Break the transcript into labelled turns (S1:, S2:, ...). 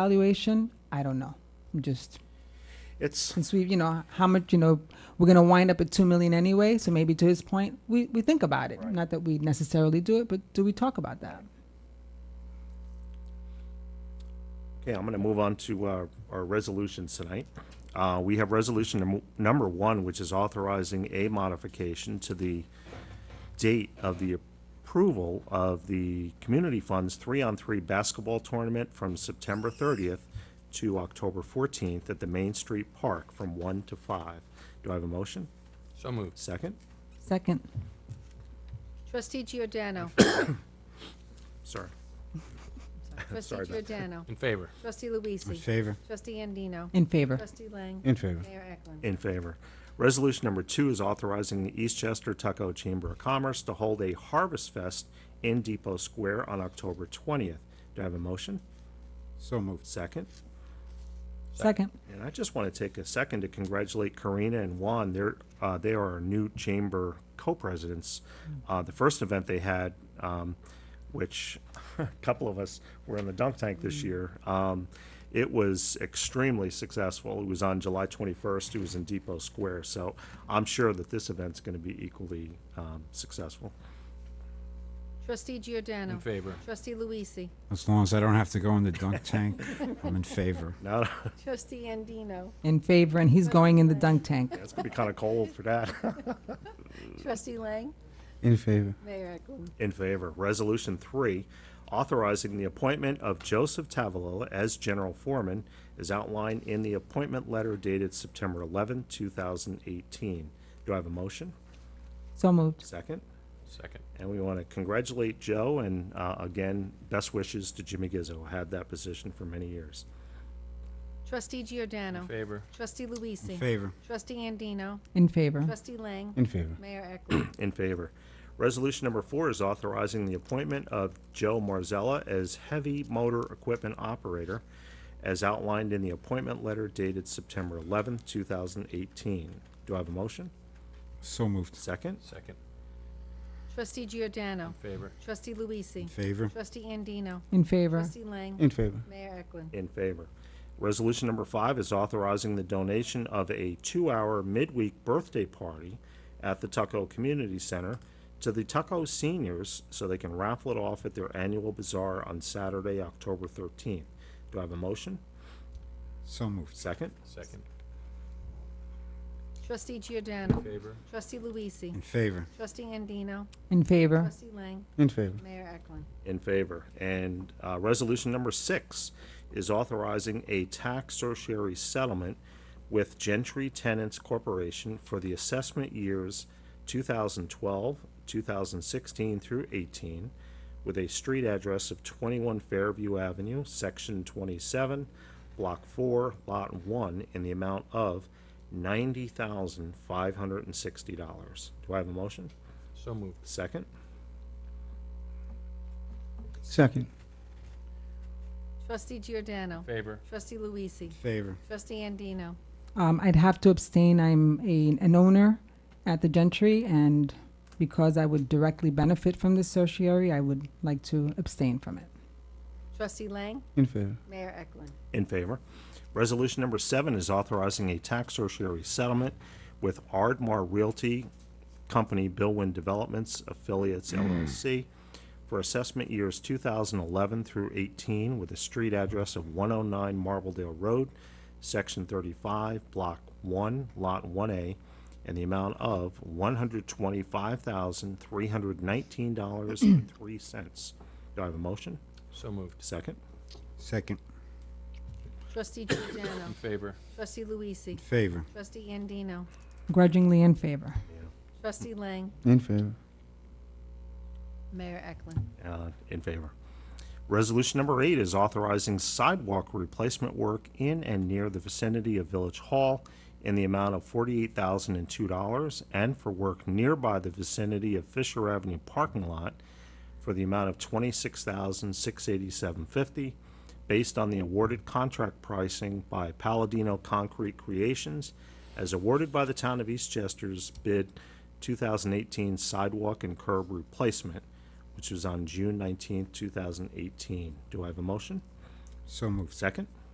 S1: reevaluation? I don't know. I'm just,
S2: It's
S1: since we, you know, how much, you know, we're gonna wind up at two million anyway, so maybe to his point, we, we think about it.
S2: Right.
S1: Not that we necessarily do it, but do we talk about that?
S2: okay. I'm going to move on to uh, our resolutions tonight. Uh, we have resolution num- number one, which is authorizing a modification to the date of the approval of the community funds three-on-three basketball tournament from September 30th to October 14th at the Main Street Park from one to five. Do I have a motion?
S3: So moved.
S2: Second?
S1: Second,
S4: Trustee Giordano.
S2: Sir.
S4: Trustee
S2: Sorry about that.
S4: Giordano.
S3: In favor.
S4: Trustee Luisi.
S5: Favor?
S4: Trustee Andino.
S1: in favor,
S4: Trustee Lang.
S5: In favor.
S4: Mayor Eklund.
S2: In favor. Resolution number two is authorizing the Eastchester Tuckahoe Chamber of Commerce to hold a Harvest Fest in Depot Square on October 20th. Do I have a motion?
S5: So moved.
S2: Second?
S1: second,
S2: And I just want to take a second to congratulate Karina and Juan. They're, uh, they are our new chamber co-presidents. Uh, the first event they had, um, which a couple of us were in the dunk tank this year, um, it was extremely successful. It was on July 21st. It was in Depot Square. So I'm sure that this event's going to be equally um, successful.
S4: Trustee Giordano.
S3: In favor.
S4: Trustee Luisi.
S5: As long as I don't have to go in the dunk tank, I'm in favor.
S2: Now,
S4: Trustee Andino.
S1: in favor, and he's going in the dunk tank.
S2: it's going to be kind of cold for that.
S4: Trustee Lang.
S5: In favor.
S4: Mayor Eklund.
S2: In favor. Resolution three, authorizing the appointment of Joseph Tavaloa as general foreman is outlined in the appointment letter dated September 11, 2018. Do I have a motion?
S1: So moved.
S2: Second?
S3: Second.
S2: And we want to congratulate Joe and, uh, again, best wishes to Jimmy Gizzo, had that position for many years.
S4: Trustee Giordano.
S3: In favor.
S4: Trustee Luisi.
S5: In favor.
S4: Trustee Andino.
S1: In favor,
S4: Trustee Lang.
S5: In favor.
S4: Mayor Eklund.
S2: In favor. Resolution number four is authorizing the appointment of Joe Marzella as heavy motor equipment operator as outlined in the appointment letter dated September 11, 2018. Do I have a motion?
S5: So moved.
S2: Second?
S3: Second.
S4: Trustee Giordano.
S3: In favor.
S4: Trustee Luisi.
S5: In favor?
S4: Trustee Andino.
S1: in favor,
S4: Trustee Lang.
S5: In favor.
S4: Mayor Eklund.
S2: In favor. Resolution number five is authorizing the donation of a two-hour midweek birthday party at the Tuckahoe Community Center to the Tuckahoe seniors so they can raffle it off at their annual bazaar on Saturday, October 13th. Do I have a motion?
S5: So moved.
S2: Second?
S3: Second.
S4: Trustee Giordano.
S3: In favor.
S4: Trustee Luisi.
S5: In favor.
S4: Trustee Andino.
S1: in favor,
S4: Trustee Lang.
S5: In favor.
S4: Mayor Eklund.
S2: In favor. And uh, resolution number six is authorizing a tax certiorari settlement with Gentry Tenants Corporation for the assessment years 2012, 2016 through 18, with a street address of 21 Fairview Avenue, Section 27, Block 4, Lot 1, in the amount of $90,560. Do I have a motion?
S3: So moved.
S2: Second?
S5: Second.
S4: Trustee Giordano.
S3: In favor.
S4: Trustee Luisi.
S5: Favor.
S4: Trustee Andino.
S1: um, I'd have to abstain. I'm a, an owner at the Gentry, and because I would directly benefit from this certiorari, I would like to abstain from it.
S4: Trustee Lang.
S5: In favor.
S4: Mayor Eklund.
S2: In favor. Resolution number seven is authorizing a tax certiorari settlement with Ardmore Realty Company Billwin Developments Affiliates LLC for assessment years 2011 through 18 with a street address of 109 Marbledale Road, Section 35, Block 1, Lot 1A, and the amount of $125,319.03. Do I have a motion?
S3: So moved.
S2: Second?
S5: Second.
S4: Trustee Giordano.
S3: In favor.
S4: Trustee Luisi.
S5: In favor.
S4: Trustee Andino.
S1: Grudgingly in favor.
S4: Trustee Lang.
S5: In favor.
S4: Mayor Eklund.
S2: Uh, In favor. Resolution number eight is authorizing sidewalk replacement work in and near the vicinity of Village Hall in the amount of $48,002 and for work nearby the vicinity of Fisher Avenue parking lot for the amount of $26,687.50 based on the awarded contract pricing by Palladino Concrete Creations as awarded by the Town of Eastchester's bid 2018 sidewalk and curb replacement, which was on June 19, 2018. Do I have a motion?
S5: So moved.
S2: Second?